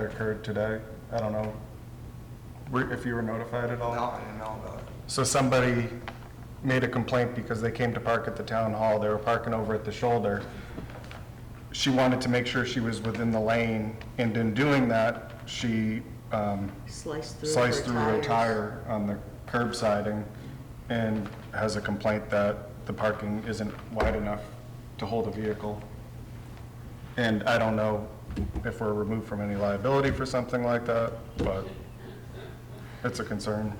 that occurred today. I don't know were- if you were notified at all. No, I didn't know about it. So somebody made a complaint because they came to park at the town hall, they were parking over at the shoulder. She wanted to make sure she was within the lane, and in doing that, she um, Slice through. sliced her through a tires. tire on the curb siding and has a complaint that the parking isn't wide enough to hold a vehicle. And I don't know if we're removed from any liability for something like that, but it's a concern.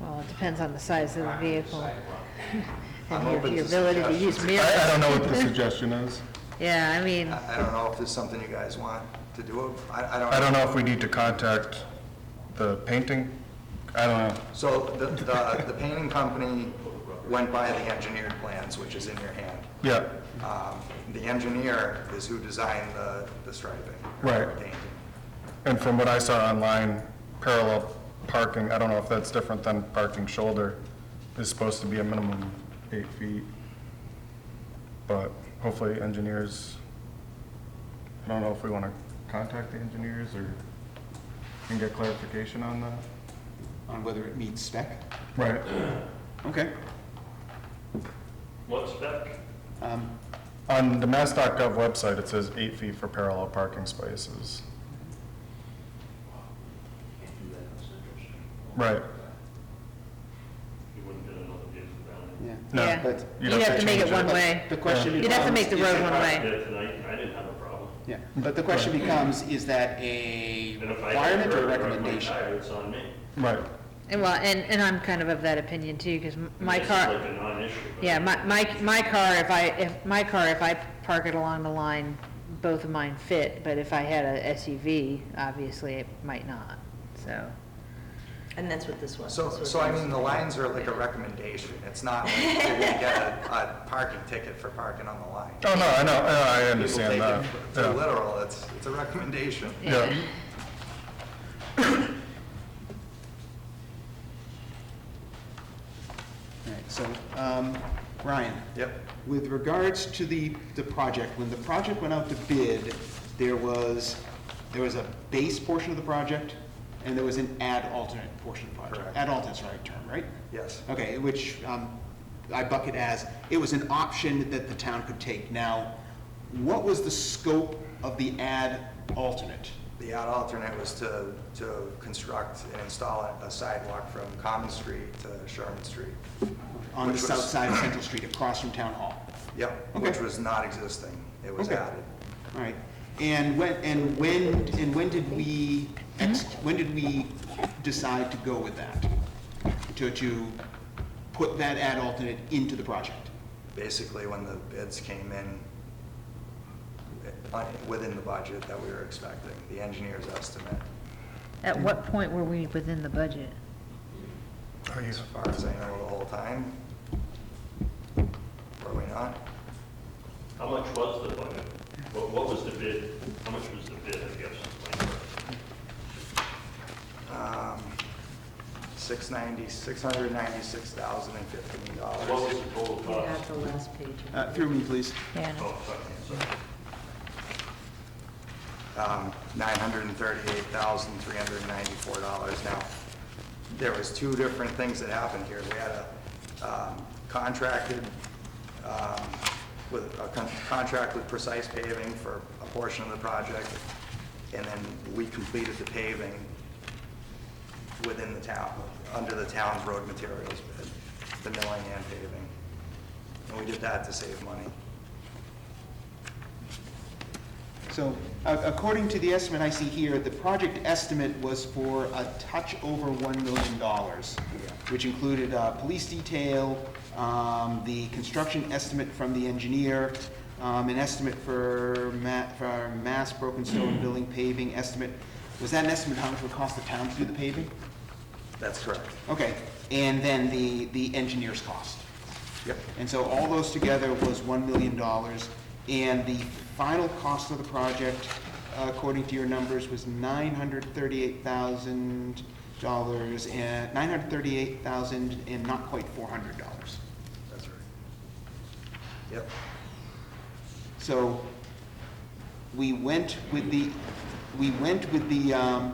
Well, it depends on the size of the vehicle. I'm And your- open to your ability to use I, mirrors. I don't know what the suggestion is. Yeah, I mean, I I don't know if there's something you guys want to do. I, I don't. I don't know if we need to contact the painting. I don't know. So the, the, the painting company went by the engineered plans, which is in your hand. Yeah, Um, The engineer is who designed the, the striping. or Right. Painting. and from what I saw online, parallel parking, I don't know if that's different than parking shoulder, is supposed to be a minimum eight feet. But hopefully engineers, I don't know if we want to contact the engineers or, and get clarification on that. on whether it meets spec. Right. Okay. What spec? Um, On the mass.gov website, it says eight feet for parallel parking spaces. Can't do that, that's interesting. Right. You wouldn't get another vehicle down there. Yeah. No, yeah, but- you'd have to make change it it. one But way. The Uh, question You'd becomes. have to make the is road it- one I way. did it tonight, I didn't have a problem. Yeah, but the question becomes, is that a And if I had requirement or a to break my recommendation? tire, it's on me. Right. And well, and, and I'm kind of of that opinion too, because my This is car. like a non-issue. but- Yeah, my, my, my car, if I, if, my car, if I park it along the line, both of mine fit, but if I had a SUV, obviously it might not, so. And that's what this was. So, This was so I this. mean, the lines are like a recommendation. It's not like you're gonna get a, a parking ticket for parking on the line. Oh, no, I know, I I understand People that. take it too Yeah. literal. It's, it's a recommendation. Yeah. All right, so, um, Ryan? Yep. With regards to the, the project, when the project went out to bid, there was, there was a base portion of the project, and there was an ad alternate portion of the project. Correct. Ad alternate's the right term, right? Yes. Okay, which um, I bucket as, it was an option that the town could take. Now, what was the scope of the ad alternate? The odd alternate was to, to construct and install a sidewalk from Common Street to Sherman Street. On the Which was- south side of Central Street, across from Town Hall. Yep, Okay. which was not existing. It was Okay. added. All right, and when, and when, and when did we, ex- when did we decide to go with that? To, to put that ad alternate into the project? Basically, when the bids came in, uh, within the budget that we were expecting, the engineer's estimate, At what point were we within the budget? Oh, you- as far as I know the whole time. Were we not? How much was the budget? What, what was the bid? How much was the bid, I guess? is my question. Um, Six ninety, six hundred ninety-six thousand and fifteen What dollars. was the total You have cost? the last page. Uh, Through me, please. Yeah, no. Oh, sorry, sorry. um, $938,394. Now, there was two different things that happened here. We had a um, contracted, um, with, a con- contract with Precise Paving for a portion of the project, and then we completed the paving within the town, under the town's road materials bid, the milling and paving. And we did that to save money. So, a- according to the estimate I see here, the project estimate was for a touch over $1 million, which included uh, police detail, um, the construction estimate from the engineer, um, an estimate for ma, for mass broken stone building paving estimate. Was that an estimate how much it would cost the town to do the paving? That's correct. Okay, and then the, the engineer's cost. Yep. And so all those together was $1 million. And the final cost of the project, uh, according to your numbers, was $938,000 and, 938,000 and not quite $400. That's right. Yep. So we went with the we went with the, um,